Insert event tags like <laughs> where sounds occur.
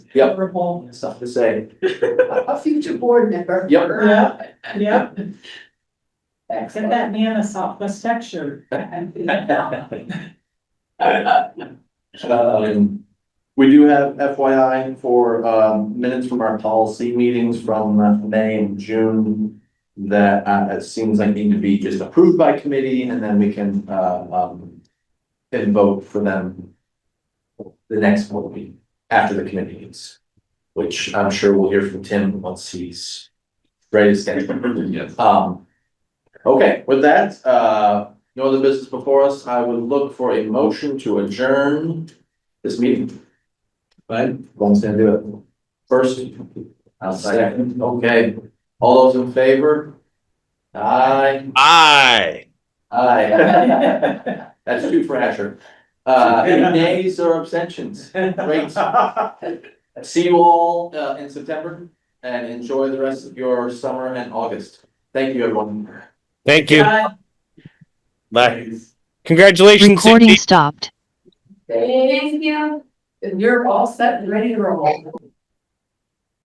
Yep. Horrible. stuff to say. A future board member. Yep. Yeah, yeah, get Excellent. that man a Southwest tech <laughs> shirt. Um, we do have FYI for, um, minutes from our policy meetings from uh, May and June that, uh, it seems like need to be just approved by committee and then we can, uh, um, and vote for them the next will be after the committee meets, which I'm sure we'll hear from Tim once he's ready to schedule. Yes. Um, okay, with that, uh, no other business before us, I would look for a motion to adjourn this meeting. Right? One's gonna do it. First. I'll second. Okay, all those in favor? Aye, Aye. aye. <laughs> That's two for Asher. Uh, any nays or abstentions? Great. See you all, uh, in September and enjoy the rest of your summer and August. Thank you, everyone. Thank you. Bye. Bye. Congratulations, Cindy. Recording stopped. Thank you. You're all set and ready to roll.